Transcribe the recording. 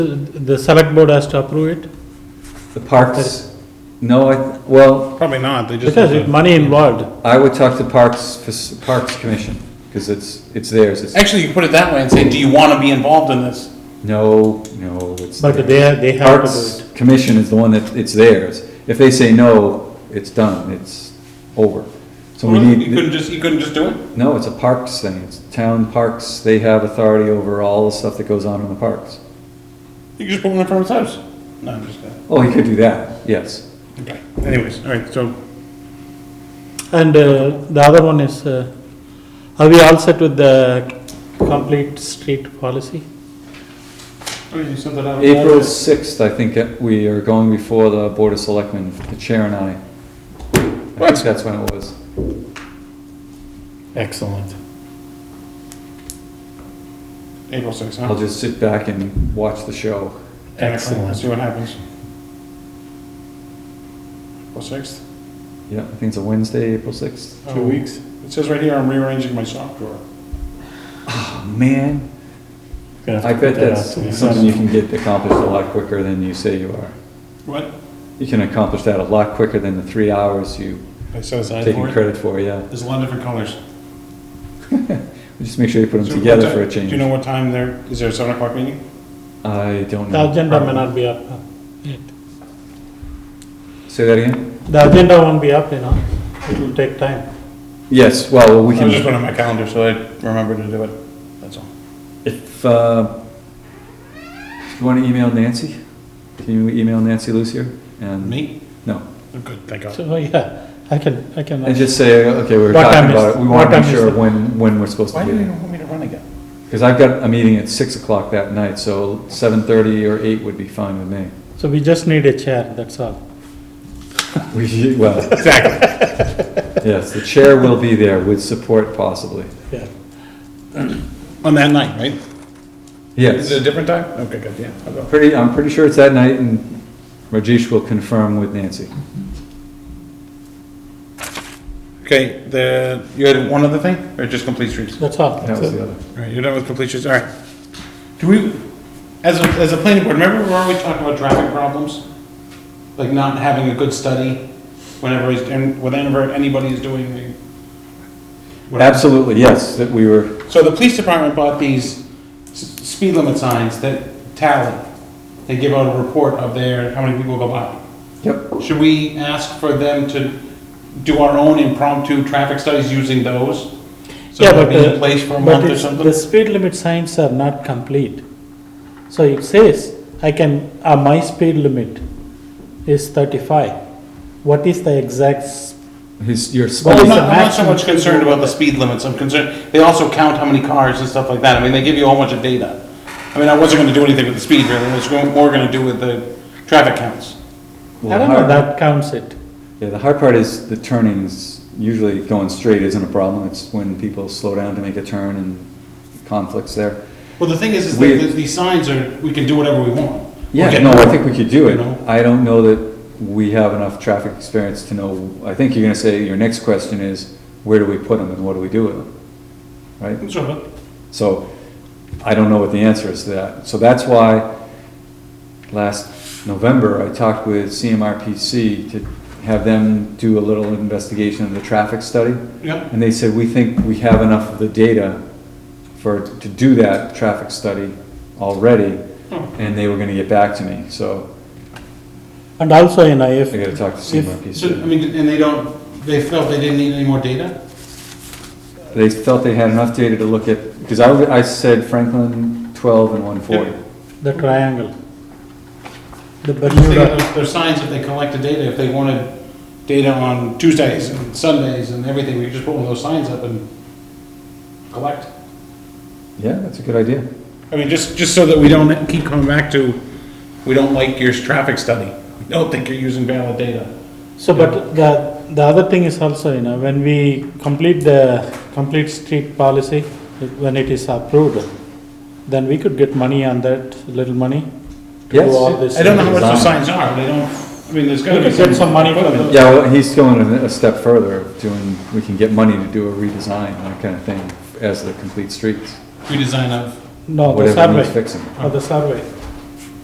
The select board has to approve it, The parks, no, I, well, Probably not, they just. because have it to- money involved. I would talk to Parks, for- Parks Commission, because it's, it's theirs, it's, Actually, you could put it that way and say, do you want to be involved in this? no, no, it's. But theirs. they- they have to do Parks Commission is the one that, it's theirs. If they say no, it's done, it's over. So we You need, couldn't just, you couldn't just do it? no, it's a parks thing, it's town parks, they have authority over all the stuff that goes on in the parks. You could just put one in front of his house? No, I'm just kidding. Oh, he could do that, yes. Okay, anyways, all right, so, And uh, the other one is, uh, are we all set with the complete street policy? okay, Oh, you sent that out. April sixth, I think, uh, we are going before the Board of Selectmen, the chair and I. I What? think that's when it was. Excellent. April sixth, I'll huh? just sit back and watch the show. Excellent. See what happens. April sixth? Yeah, I think it's a Wednesday, April sixth. Two weeks. It says right here, I'm rearranging my sock drawer. Oh, man, I bet that's something you What? can get accomplished a lot quicker than you say you are. You can accomplish that a lot quicker than the three hours you I set aside taking for it? credit for, yeah. There's a lot of different colors. Just make sure you put So them what together time- for a Do you know change. what time there, is there a seven o'clock meeting? I don't The know. agenda may not be up uh, yet. Say that again? The agenda won't be up, you know, it will take time. Yes, well, we I was just can, putting it on my calendar so I remember to do it, that's all. if, uh, you want to email Nancy? Can you email Nancy Lucier? And- Me? No. Good, thank God. So, yeah, I can, I can. And just say, okay, we were What time talking is- about it. We what want to time make is sure it? when, when we're supposed to Why be do you there. want me to run again? Because I've got a meeting at six o'clock that night, so seven thirty or eight would be fine with me. So we just need a chair, that's all. We, well. Exactly. Yes, the chair will be there with support possibly. Yeah. On that night, right? Is it a Yes, different time? Okay, good, yeah, I'll go. pretty, I'm pretty sure it's that night and Rajesh will confirm with Nancy. Okay, the, you had one other thing, or just complete streets? All That's all. That was the other. right, you're done with complete streets, all right. Do we, as a, as a planning board, remember where we talked about traffic problems? Like not having a good study whenever, he's- and whenever anybody is doing the. whatever. Absolutely, yes, that we were, So the police department bought these s- speed limit signs that tally. They give out a report of their, how many people go by. yep, Should we ask for them to do our own impromptu traffic studies using those? So Yeah, they'll but be uh, in place for but a month or it's- The something? speed limit signs are not complete. So it says, I can, uh, my speed limit is thirty-five. What is the exact, s- his, your Well, I'm it's speed, not, a I'm not so maximum much concerned about the speed limits, I'm concerned, they also count how many cars and stuff like that, I mean, they give you a whole bunch of data. I mean, I wasn't gonna do anything with the speed, really, I was going- more gonna do with the traffic I counts. well, the don't know, hard, that counts it. yeah, the hard part is the turnings, usually going straight isn't a problem. It's when people slow down to make a turn and conflicts there. Well, the thing is, is We- that the- these signs are, we can do whatever we want. Yeah, Okay. no, I think we could do You it. know? I don't know that we have enough traffic experience to know, I think you're gonna say, your next question is, where do we put them and what do we do with them? Right? Sort of. So, I don't know what the answer is to that. So that's why last November, I talked with CMRPC to have them do a little investigation of the traffic study. Yep, And they said, we think we have enough of the data for, to do that traffic study already, Oh. and they were gonna get back to me, so And also, you know, if, I gotta talk to so, I CMRPC. mean, and they don't, they felt they didn't need any more data? They felt they had enough data to look at, because I, w- I said Franklin twelve and one forty. the triangle, the I'm just thinking Bermuda, of- There's signs that they collected data, if they wanted data on Tuesdays and Sundays and everything, we could just put one of those signs up and collect. Yeah, that's a good idea. I mean, just, just so that we don't keep coming back to, we don't like your traffic study, we don't think you're using valid data. so but the, the other thing is also, you know, when we complete the complete street policy, when it is approved, then we could get money on that, little money. to do Yes. all this. I don't know how much those Design. signs are, they don't, I mean, there's gotta We be. could get some money for them. Yeah, well, he's going a a step further, of doing, we can get money to do a redesign, that kind of thing, as the complete streets, Redesign of. No, the Oh, whatever needs survey, fixing. or the survey.